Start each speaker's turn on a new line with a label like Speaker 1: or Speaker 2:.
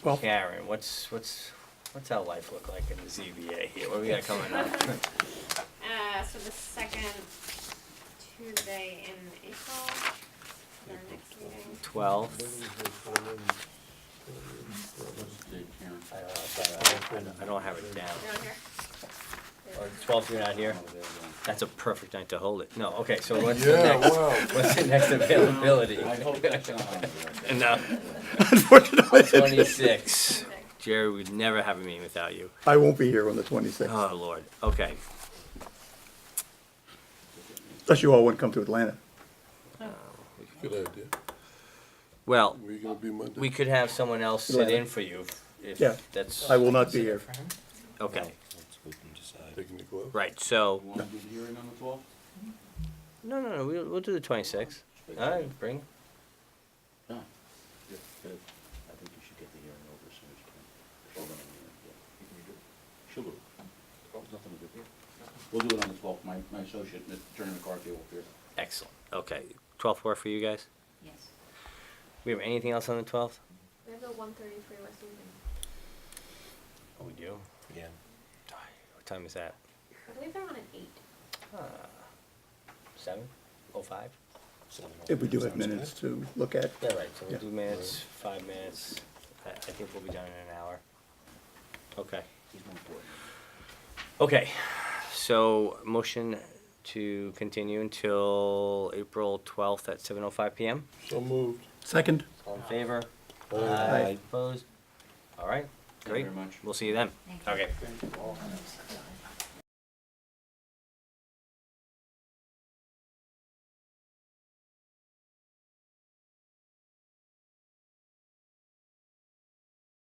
Speaker 1: Well-
Speaker 2: Karen, what's, what's, what's our life look like in the ZBA here? What do we got coming up?
Speaker 3: Uh, so the second Tuesday in April, our next meeting.
Speaker 2: Twelfth? I don't know, sorry, I don't- I don't have it down.
Speaker 3: You're on here?
Speaker 2: Or twelfth, you're not here? That's a perfect night to hold it. No, okay, so what's the
Speaker 4: Yeah,
Speaker 2: next,
Speaker 4: wow.
Speaker 2: what's the next availability?
Speaker 5: I hope that's not on there.
Speaker 2: No,
Speaker 1: Unfortunately,
Speaker 2: twenty-six. Jerry, we'd never have a meeting without you.
Speaker 1: I won't be here on the 26th,
Speaker 2: Oh, Lord, okay.
Speaker 1: unless you all want to come to Atlanta.
Speaker 4: Good idea.
Speaker 2: Well,
Speaker 4: Were you gonna be Monday?
Speaker 2: we could have someone else sit in for you if
Speaker 1: Yeah,
Speaker 2: that's,
Speaker 1: I will not be here.
Speaker 2: okay,
Speaker 4: Taking the glove?
Speaker 2: right, so.
Speaker 5: Want to do the hearing on the twelfth?
Speaker 2: No, no, no. We'll, we'll do the 26th. All right, bring.
Speaker 5: No. I think you should get the hearing over as soon as you can. She'll do it. She'll do it. There's nothing to do. We'll do it on the twelfth. My, my associate, Mr. Attorney McCarthy, will appear.
Speaker 2: Excellent. Okay. 12th work for you guys?
Speaker 6: Yes.
Speaker 2: We have anything else on the 12th?
Speaker 3: We have the one thirty-three West Union.
Speaker 2: Oh, we do? Yeah. What time is that?
Speaker 3: I believe they're on at eight.
Speaker 2: Uh, 7? 05?
Speaker 1: If we do have minutes to look at,
Speaker 2: Yeah, right. So we'll
Speaker 1: Yeah.
Speaker 2: do minutes, five minutes. I, I think we'll be done in an hour. Okay.
Speaker 5: He's more important.
Speaker 2: Okay. So, motion to continue until April 12th at 7.05 p.m.
Speaker 4: So moved.
Speaker 1: second,
Speaker 2: All in favor?
Speaker 1: Aye.
Speaker 2: Opposed? All right.
Speaker 5: Thank you
Speaker 2: Great.
Speaker 5: very much.
Speaker 2: We'll see you then.
Speaker 6: Thank you.
Speaker 2: Okay.
Speaker 5: Thank you all.